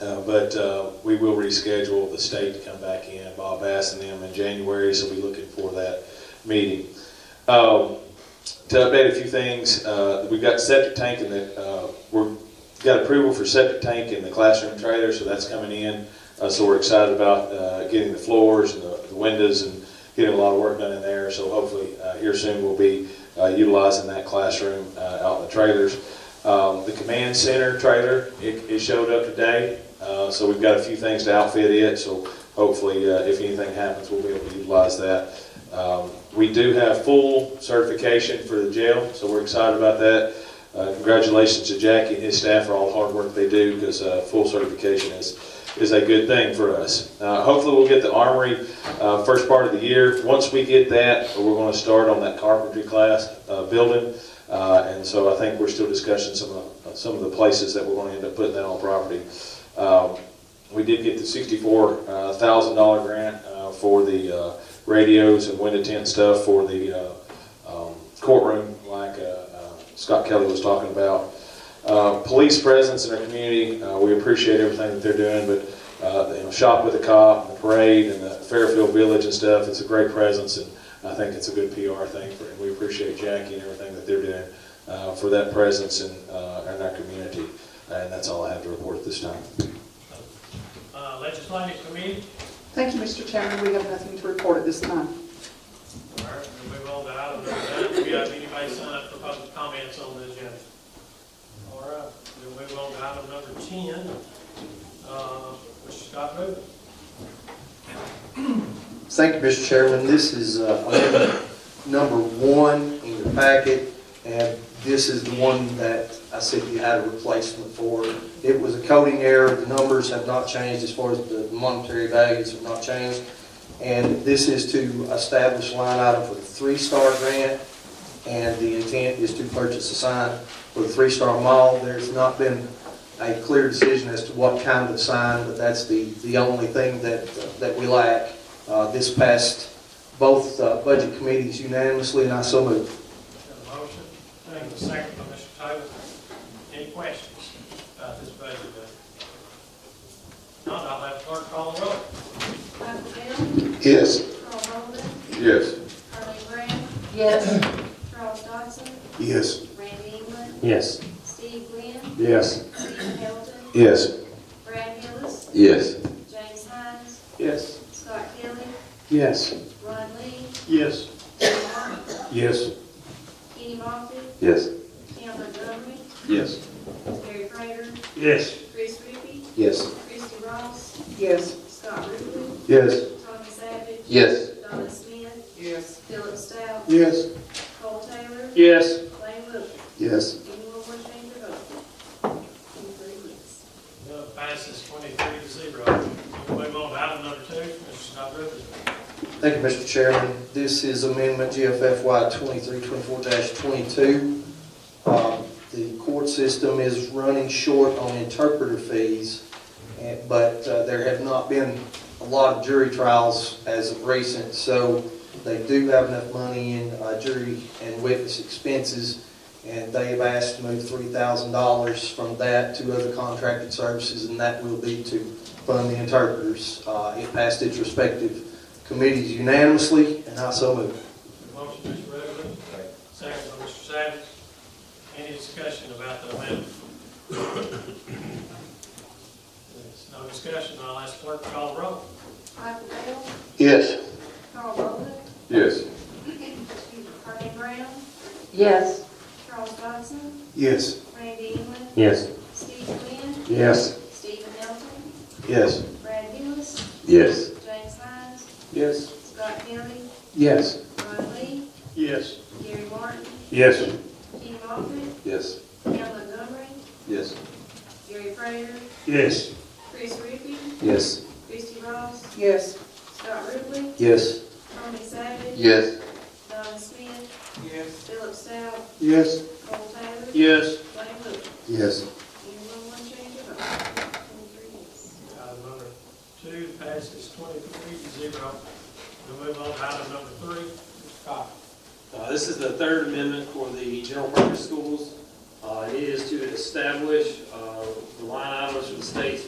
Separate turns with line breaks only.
Uh, But uh, we will reschedule the state to come back in, Bob asked them in January, so we're looking for that meeting. Um, To update a few things, uh, we've got septic tank in the, uh, we're, got approval for septic tank in the classroom trailer, so that's coming in. Uh, So we're excited about uh, getting the floors and the the windows and getting a lot of work done in there. So hopefully uh, here soon we'll be uh, utilizing that classroom uh, out in the trailers. Um, The command center trailer, it it showed up today, uh, so we've got a few things to outfit it. So hopefully, uh, if anything happens, we'll be able to utilize that. Um, We do have full certification for the jail, so we're excited about that. Uh, Congratulations to Jackie and his staff for all the hard work they do, because full certification is, is a good thing for us. Uh, Hopefully, we'll get the armory uh, first part of the year. Once we get that, we're going to start on that carpentry class uh, building. Uh, And so I think we're still discussing some of, some of the places that we're going to end up putting that on property. Um, We did get the sixty-four uh, thousand dollar grant uh, for the uh, radios and window tint stuff for the uh, um, courtroom, like uh, uh, Scott Kelly was talking about. Uh, Police presence in our community, uh, we appreciate everything that they're doing, but, uh, you know, Shop with a Cop, and the parade, and the Fairfield Village and stuff, it's a great presence, and I think it's a good PR thing, for- and we appreciate Jackie and everything that they're doing uh, for that presence in, uh, in our community. And that's all I have to report at this time.
Uh, Legislative Committee,
Thank you, Mr. Chairman. We have nothing to report at this time.
all right, we'll move on to item number nine. Do we have anybody sign up for public comments on the agenda? All right, we'll move on to item number ten, uh, Mr. Scott Rubin.
Thank you, Mr. Chairman. This is uh, amendment number one in your packet, and this is the one that I said you had a replacement for. It was a coding error, the numbers have not changed as far as the monetary values have not changed. And this is to establish line item for the three-star grant, and the intent is to purchase a sign for the three-star mall. There's not been a clear decision as to what kind of sign, but that's the, the only thing that, that we lack. Uh, This passed both uh, budget committees unanimously, and I so move.
Got a motion, thank you, second by Mr. Taylor. Any questions about this budget? bill? Not, I'll have clerk call the roll.
Michael Bell,
Yes.
Carl Bolden,
Yes.
Carly Brown,
Yes.
Charles Dodson,
Yes.
Randy England,
Yes.
Steve Glenn,
Yes.
Steve Hamilton,
Yes.
Brad Hillis,
Yes.
James Hines,
Yes.
Scott Kelly,
Yes.
Ron Lee,
Yes.
Kenny Moffitt,
Yes.
Kenny Moffitt,
Yes.
Cam Montgomery,
Yes.
Gary Prater,
Yes.
Chris Ruby,
Yes.
Christie Ross,
Yes.
Scott Ruble,
Yes.
Tommy Savage,
Yes.
Donna Smith,
Yes.
Philip Stout,
Yes.
Cole Taylor,
Yes.
Lane Wilcher.
Yes.
Anyone want to change their vote? In three weeks.
No, passes twenty-three to zero. We'll move on to item number two, Mr. Scott Rubin.
Thank you, Mr. Chairman. This is amendment GFFY 2324-22. Um, The court system is running short on interpreter fees, eh, but uh, there have not been a lot of jury trials as of recent, so they do have enough money in uh, jury and witness expenses, and they have asked to move $3,000 from that to other contracted services, and that will be to fund the interpreters. Uh, It passed its respective committees unanimously, and I so move.
Motion, Mr. Rutherford. Second by Mr. Savage. Any discussion about the amendment? There's no discussion, I'll ask clerk to call the roll.
Michael Bell,
Yes.
Carl Bolden,
Yes.
Carly Brown,
Yes.
Charles Dodson,
Yes.
Randy England,
Yes.
Steve Glenn,
Yes.
Stephen Elton,
Yes.
Brad Hillis,
Yes.
James Hines,
Yes.
Scott Kelly,
Yes.
Ron Lee,
Yes.
Gary Martin,
Yes.
Kenny Moffitt,
Yes.
Cam Montgomery,
Yes.
Gary Prater,
Yes.
Chris Ruby,
Yes.
Christie Ross,
Yes.
Scott Ruble,
Yes.
Tommy Savage,
Yes.
Donna Smith,
Yes.
Philip Stout,
Yes.
Cole Taylor,
Yes.
Lane Wilcher.
Yes.
Anyone want to change their vote? In three weeks.
Item number two passes twenty-three to zero. We'll move on to item number three, Mr. Cox.
Uh, This is the third amendment for the general purpose schools. Uh, It is to establish uh, the line items for the state's